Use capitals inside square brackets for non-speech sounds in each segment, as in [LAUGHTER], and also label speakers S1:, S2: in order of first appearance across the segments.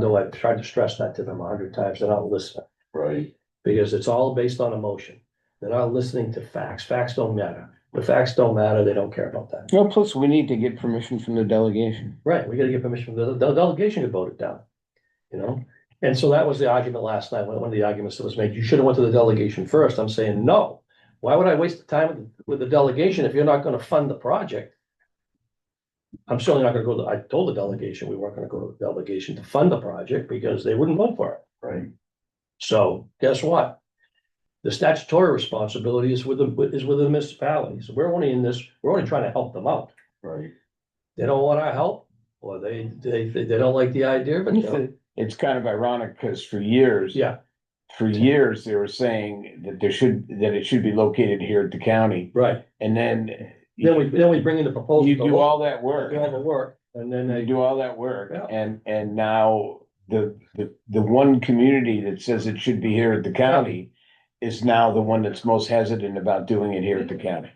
S1: know I've tried to stress that to them a hundred times, they're not listening,
S2: Right,
S1: because it's all based on emotion. They're not listening to facts, facts don't matter, the facts don't matter, they don't care about that.
S3: No, plus we need to get permission from the delegation.
S1: Right, we gotta get permission from the, the delegation to vote it down, you know? And so that was the argument last night, one one of the arguments that was made, you should have went to the delegation first, I'm saying, no. Why would I waste the time with the delegation if you're not gonna fund the project? I'm certainly not gonna go to, I told the delegation, we weren't gonna go to the delegation to fund the project, because they wouldn't vote for it.
S2: right.
S1: So guess what? The statutory responsibility is with the, is with the municipalities. We're only in this, we're only trying to help them out.
S2: Right,
S1: They don't want our help, or they, they, they don't like the idea, but you know,
S3: It's kind of ironic because for years.
S1: Yeah.
S3: For years, they were saying that there should, that it should be located here at the county
S1: right.
S3: and then.
S1: Then we, then we bring in the proposal.
S3: You do all that work.
S1: Do all the work, and then
S3: They
S1: they,
S3: do all that work
S1: Yeah.
S3: and, and now the, the, the one community that says it should be here at the county. Is now the one that's most hesitant about doing it here at the county.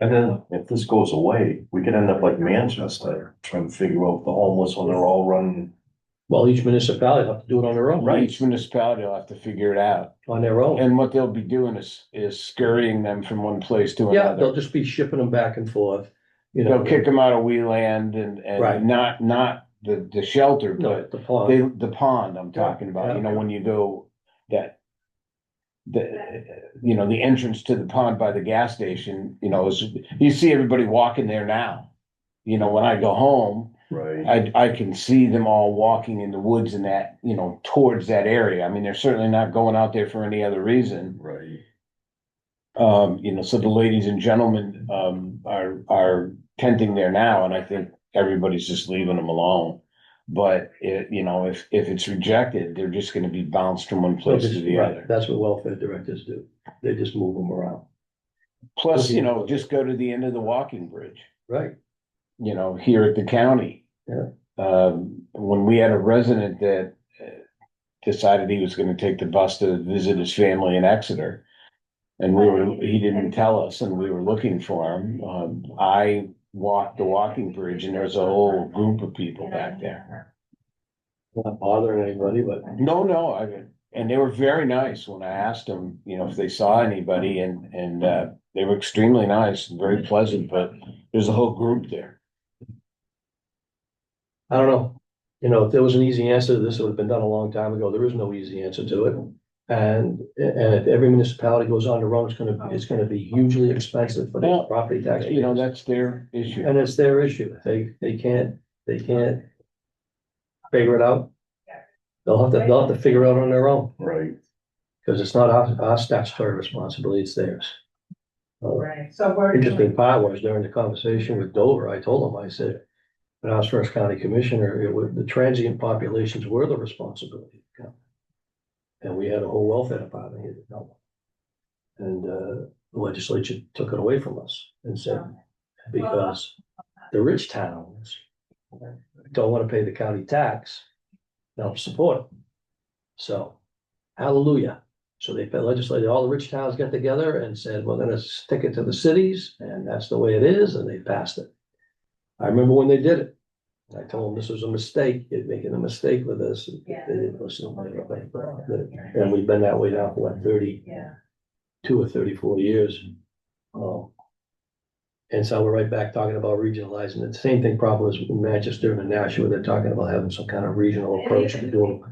S2: and then if this goes away, we could end up like Manchester, trying to figure out the homeless when they're all running.
S1: well, each municipality will have to do it on their own.
S3: Each municipality will have to figure it out.
S1: On their own.
S3: And what they'll be doing is, is scurrying them from one place to
S1: Yeah, they'll
S3: another.
S1: just be shipping them back and forth, you know.
S3: They'll kick them out of Wheeland and,
S1: Right.
S3: and not, not the, the shelter,
S1: No,
S3: but
S1: at the pond.
S3: they, the pond I'm talking about, you know, when you go that. The, you know, the entrance to the pond by the gas station, you know, is, you see everybody walking there now. You know, when I go home,
S2: Right.
S3: I, I can see them all walking in the woods in that, you know, towards that area. I mean, they're certainly not going out there for any other reason.
S2: Right,
S3: Um, you know, so the ladies and gentlemen, um, are, are tenting there now, and I think everybody's just leaving them alone. But it, you know, if, if it's rejected, they're just gonna be bounced from one
S1: They'll
S3: place
S1: just-
S3: to the
S1: right,
S3: other.
S1: That's what welfare directors do. They just move them around,
S3: Plus, you know, just go to the end of the walking bridge,
S1: right?
S3: you know, here at the county.
S1: Yeah.
S3: Um, when we had a resident that uh, decided he was gonna take the bus to visit his family in Exeter. And we were, he didn't tell us and we were looking for him. Um, I walked the walking bridge and there's a whole group of people back there.
S1: Not bothering anybody, but
S3: No, no, I, and they were very nice when I asked them, you know, if they saw anybody and, and, uh, they were extremely nice and very pleasant, but there's a whole group there.
S1: I don't know. You know, if there was an easy answer to this, it would have been done a long time ago. There is no easy answer to it. And, and if every municipality goes on their own, it's gonna, it's gonna be hugely expensive for the
S3: Well,
S1: property tax.
S3: You know, that's their issue.
S1: And it's their issue. They, they can't, they can't figure it out. They'll have to, they'll have to figure it out on their own,
S2: right.
S1: because it's not our, our statutory responsibility, it's theirs. Uh,
S4: Right, so we're.
S1: Interesting part was during the conversation with Dover, I told him, I said, when I was first county commissioner, it was, the transient populations were the responsibility. of the county. And we had a whole welfare department here that dealt with it. And, uh, the legislature took it away from us and said, because the rich towns don't want to pay the county tax, they'll support it. So, hallelujah. So they legislated, all the rich towns got together and said, we're gonna stick it to the cities, and that's the way it is, and they passed it. I remember when they did it. I told them this was a mistake, you're making a mistake with this. They
S4: Yeah.
S1: didn't listen. They were like, And we've been that way now for what, thirty,
S4: Yeah,
S1: two or thirty-four years. Um, And so we're right back talking about regionalizing. The same thing probably is with Manchester and Nashua. They're talking about having some kind of regional approach to doing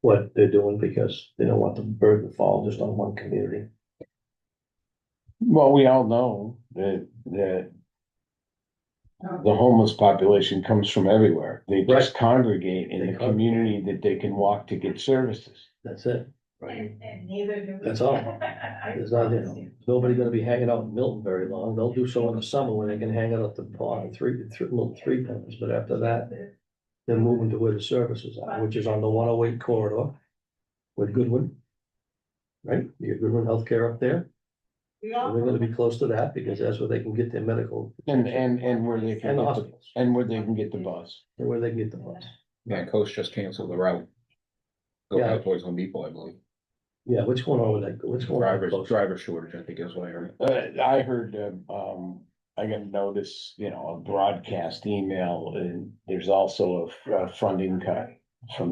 S1: what they're doing because they don't want the burden to fall just on one community.
S3: Well, we all know that, that the homeless population comes from everywhere. They just congregate in
S1: They
S3: a
S1: con-
S3: community that they can walk to get services.
S1: That's it.
S4: and, and neither do we.
S1: That's all.
S4: [LAUGHS] I
S1: There's not, you
S4: promise
S1: know,
S4: you.
S1: nobody gonna be hanging out in Milton very long. They'll do so in the summer when they can hang out at the pond, three, three, well, three times. But after that, they're moving to where the services are, which is on the one oh eight corridor with Goodwin. Right? You got Goodwin Healthcare up there.
S4: We
S1: So
S4: all-
S1: They're gonna be close to that because that's where they can get their medical.
S3: And, and, and where they can
S1: And the
S3: get the,
S1: hospitals,
S3: and where they can get the bus.
S1: and where they can get the funds.
S5: Yeah, Coast just canceled the route. Go
S1: Yeah.
S5: out towards Home Depot, I believe.
S1: Yeah, what's going on with that? What's going on? with
S5: Driver's,
S1: those?
S5: driver shortage, I think is what I heard.
S3: Uh, I heard, um, um, I got a notice, you know, a broadcast email and there's also a f- a funding cut from